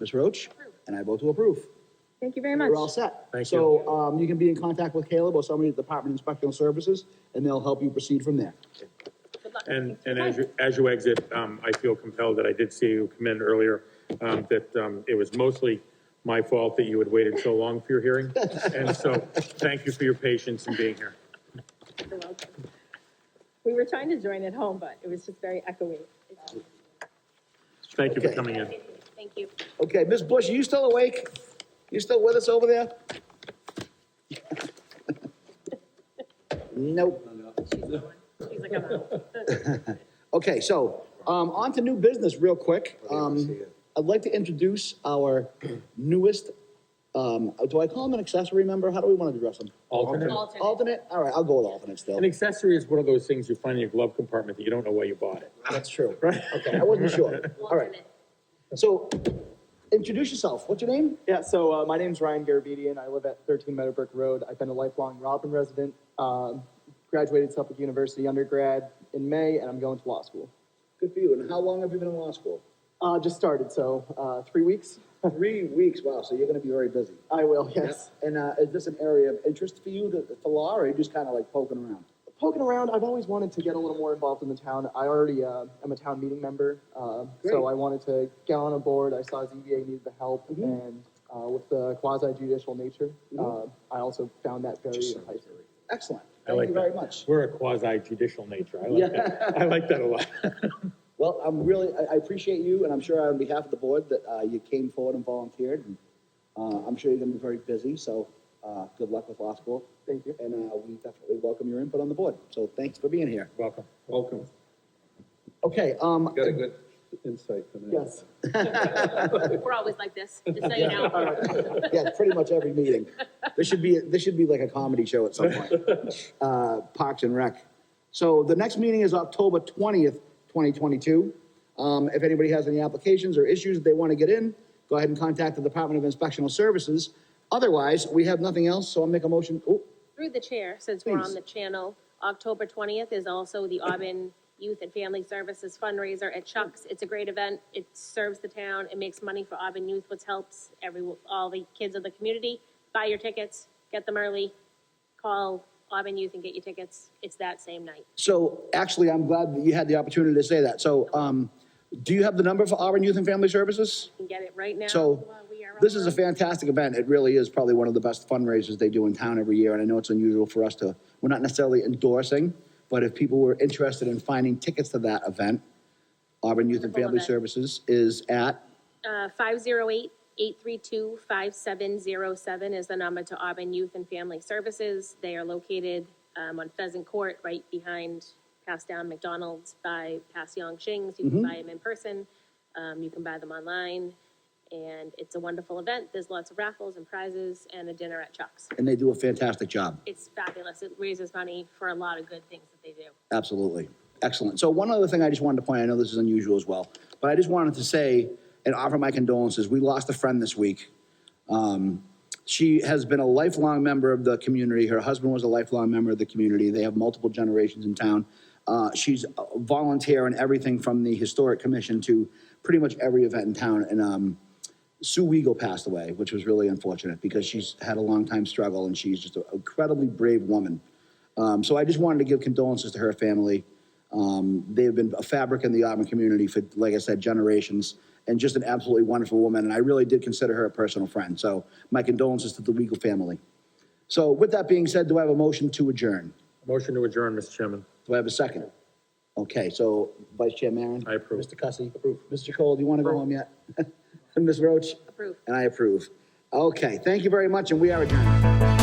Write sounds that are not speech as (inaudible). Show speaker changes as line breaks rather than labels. Ms. Roach? And I vote to approve.
Thank you very
We're all
much.
set.
Thank
So, um, you can be in contact with Caleb or somebody at the Department of Inspectional Services, and they'll help you proceed from there.
And, and as you, as you exit, um, I feel compelled that I did see you come in earlier, um, that, um, it was mostly my fault that you had waited so long for
(laughs)
your hearing. And so, thank you for your patience in being here.
You're welcome. We were trying to join at home, but it was just very echoey.
Thank you for
Okay.
coming in.
Thank you.
Okay, Ms. Bush, are you still awake? You still with us over there? (laughs) Nope. (laughs)
She's like, I'm out.
Okay, so, um, on to new business real quick.
I see
Um,
it.
I'd like to introduce our newest, um, do I call him an accessory member? How do we want to address him?
Alternate.
Alternate? All right, I'll go with alternate still.
An accessory is one of those things you find in your glove compartment that you don't know why you bought it.
That's true. Right. Okay, I wasn't sure. All right. So, introduce yourself. What's your name?
Yeah, so uh, my name's Ryan Garabedian. I live at 13 Meadowbrook Road. I've been a lifelong Robin resident, um, graduated Suffolk University undergrad in May, and I'm going to law school.
Good for you. And how long have you been in law school?
Uh, just started, so uh, three weeks.
Three weeks. Wow, so you're gonna be very busy.
I will, yes.
And, uh, is this an area of interest for you, the, the law, or are you just kinda like poking around?
Poking around, I've always wanted to get a little more involved in the town. I already uh, am a town meeting member, uh,
Great.
so I wanted to get on a board. I saw ZBA needed the help, and uh, with the quasi judicial nature,
Mhm.
uh, I also found that very enticing.
Excellent.
I like
Thank you very
that.
much.
We're a quasi judicial nature. I
Yeah.
like that. I like that a lot.
Well, I'm really, I, I appreciate you, and I'm sure on behalf of the board that, uh, you came forward and volunteered. and, Uh, I'm sure you're gonna be very busy, so, uh, good luck with law school.
Thank you.
And, uh, we definitely welcome your input on the board, so thanks for being here.
Welcome.
Welcome.
Okay, um,
Got a good insight from that.
Yes.
We're always like this, just so
(laughs)
you know.
Yeah, pretty much every meeting. This should be, this should be like a comedy show at some point. Uh, Parks and Rec. So the next meeting is October twentieth, twenty twenty-two. Um, if anybody has any applications or issues that they want to get in, go ahead and contact the Department of Inspectional Services. Otherwise, we have nothing else, so I'll make a motion, oh,
Through the chair, since we're
Please.
on the channel, October 20th is also the Auburn Youth and Family Services fundraiser at Chuck's. It's a great event. It serves the town. It makes money for Auburn Youth, which helps every, all the kids of the community. Buy your tickets, get them early, call Auburn Youth and get your tickets. It's that same night.
so actually, I'm glad that you had the opportunity to say that. So, um, do you have the number for Auburn Youth and Family Services?
You can get it right now.
So,
while we are
this is a
online.
fantastic event. It really is probably one of the best fundraisers they do in town every year, and I know it's unusual for us to, we're not necessarily endorsing, but if people were interested in finding tickets to that event, Auburn Youth and
Wonderful
Family
event.
Services is at,
Uh, 508-832-5707 is the number to Auburn Youth and Family Services. They are located um, on Pheasant Court, right behind Pass Down McDonald's by Pass Yong Shings. You can
Mm-hmm.
buy them in person, um, you can buy them online, and it's a wonderful event. There's lots of raffles and prizes and a dinner at Chuck's.
and they do a fantastic job.
It's fabulous. It raises money for a lot of good things that they do.
Absolutely. Excellent. So one other thing I just wanted to point, I know this is unusual as well, but I just wanted to say and offer my condolences. We lost a friend this week. Um, she has been a lifelong member of the community. Her husband was a lifelong member of the community. They have multiple generations in town. Uh, she's a volunteer in everything from the historic commission to pretty much every event in town. And um, Sue Weigel passed away, which was really unfortunate because she's had a long time struggle and she's just an incredibly brave woman. Um, so I just wanted to give condolences to her family. Um, they have been a fabric in the Auburn community for, like I said, generations, and just an absolutely wonderful woman. And I really did consider her a personal friend. So my condolences to the Weigel family. So with that being said, do I have a motion to adjourn?
Motion to adjourn, Mr. Chairman.
Do I have a second? Okay, so Vice Chair Maron?
I approve.
Mr. Cussy? Approve. Mr. Cole, do you want to go home yet? (laughs) And Ms. Roach?
Approve.
And I approve. Okay, thank you very much, and we are adjourned.